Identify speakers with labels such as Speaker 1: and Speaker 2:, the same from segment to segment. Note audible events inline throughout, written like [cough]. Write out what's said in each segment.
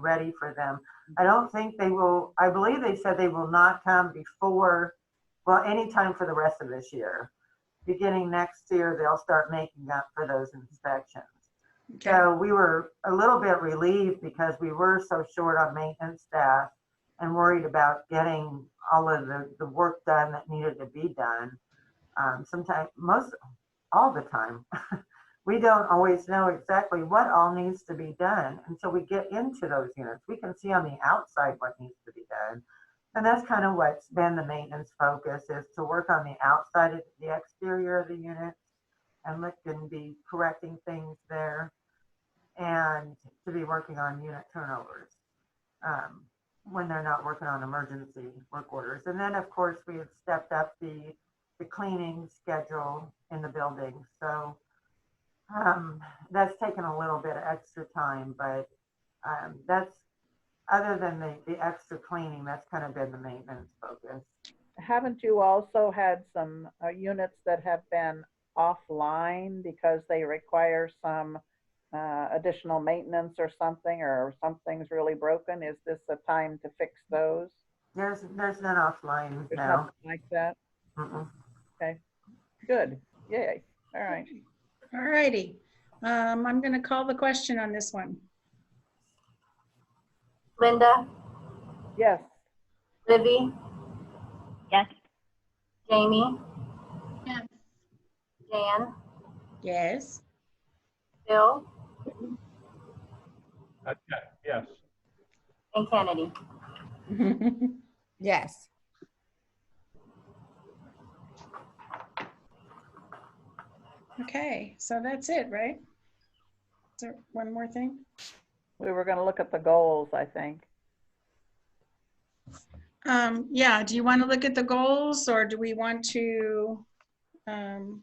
Speaker 1: ready for them. I don't think they will, I believe they said they will not come before, well, anytime for the rest of this year. Beginning next year, they'll start making up for those inspections.
Speaker 2: Okay,
Speaker 1: So we were a little bit relieved because we were so short on maintenance staff and worried about getting all of the, the work done that needed to be done. Um, sometimes, most, all the time. [laughs] We don't always know exactly what all needs to be done until we get into those units. We can see on the outside what needs to be done. And that's kind of what's been the maintenance focus is to work on the outside of the exterior of the unit and look and be correcting things there and to be working on unit turnovers um, when they're not working on emergency work orders. And then, of course, we had stepped up the, the cleaning schedule in the building. So um, that's taken a little bit of extra time, but um, that's, other than the, the extra cleaning, that's kind of been the maintenance focus.
Speaker 3: Haven't you also had some uh, units that have been offline because they require some uh, additional maintenance or something, or something's really broken? Is this a time to fix those?
Speaker 1: There's, there's none offline
Speaker 3: Or
Speaker 1: now.
Speaker 3: something like that?
Speaker 1: Mm-mm.
Speaker 3: Good, yay, all right.
Speaker 2: all righty. Um, I'm going to call the question on this one.
Speaker 4: Linda,
Speaker 3: Yes,
Speaker 4: Libby,
Speaker 5: Yes.
Speaker 4: Jamie,
Speaker 2: Yes.
Speaker 4: Dan,
Speaker 1: [laughs]
Speaker 2: Yes,
Speaker 4: Bill,
Speaker 6: Uh, yeah, Yes,
Speaker 4: and Kennedy.
Speaker 7: Yes.
Speaker 2: okay, so that's it, right? Is there one more thing?
Speaker 3: we were gonna look at the goals, I think.
Speaker 2: Um, yeah, do you want to look at the goals or do we want to? um,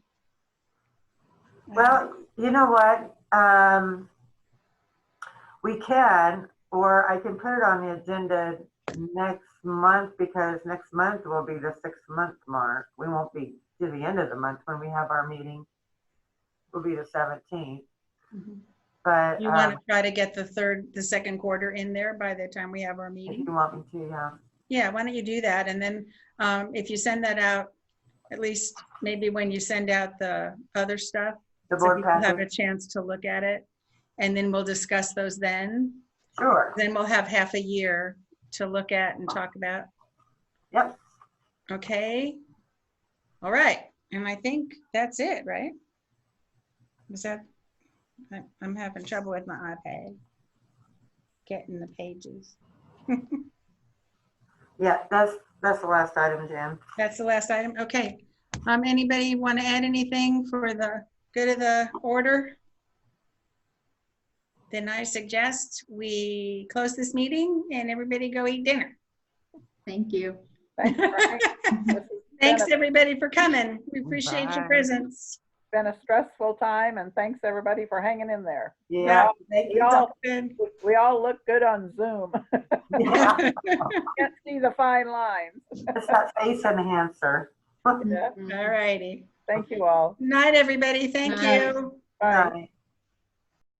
Speaker 1: Well, you know what? Um, we can, or I can put it on the agenda next month because next month will be the six month mark. We won't be to the end of the month when we have our meeting. Will be the seventeenth,
Speaker 2: Mhm.
Speaker 1: but
Speaker 2: You
Speaker 1: um,
Speaker 2: want to try to get the third, the second quarter in there by the time we have our
Speaker 1: if
Speaker 2: meeting?
Speaker 1: you want me to, yeah.
Speaker 2: Yeah, why don't you do that? And then um, if you send that out, at least maybe when you send out the other stuff,
Speaker 1: The
Speaker 2: so
Speaker 1: board
Speaker 2: people have a
Speaker 1: package,
Speaker 2: chance to look at it. And then we'll discuss those then.
Speaker 1: sure.
Speaker 2: Then we'll have half a year to look at and talk about.
Speaker 1: Yep.
Speaker 2: Okay. All right. And I think that's it, right? Is that, I- I'm having trouble with my iPad. Getting the pages.
Speaker 1: Yeah, that's, that's the last item, Jim.
Speaker 2: That's the last item. Okay. Um, anybody want to add anything for the good of the order? Then I suggest we close this meeting and everybody go eat dinner.
Speaker 8: Thank you.
Speaker 1: [laughs]
Speaker 3: Thanks, Frank. This has
Speaker 2: Thanks,
Speaker 3: been a-
Speaker 2: everybody, for coming. We appreciate your
Speaker 1: Bye.
Speaker 2: presence.
Speaker 3: Been a stressful time, and thanks, everybody, for hanging in there.
Speaker 1: Yeah, thank
Speaker 3: We
Speaker 1: you.
Speaker 3: all,
Speaker 2: Good.
Speaker 3: we all look good on Zoom. [laughs]
Speaker 1: Yeah, [laughs]
Speaker 3: Can't see the fine lines.
Speaker 1: It's that face enhancer.
Speaker 3: Yeah.
Speaker 1: Mm-hmm.
Speaker 8: Mm.
Speaker 2: All righty.
Speaker 3: Thank you all.
Speaker 2: Night, everybody. Thank
Speaker 8: Night.
Speaker 2: you.
Speaker 3: Bye.
Speaker 1: Bye.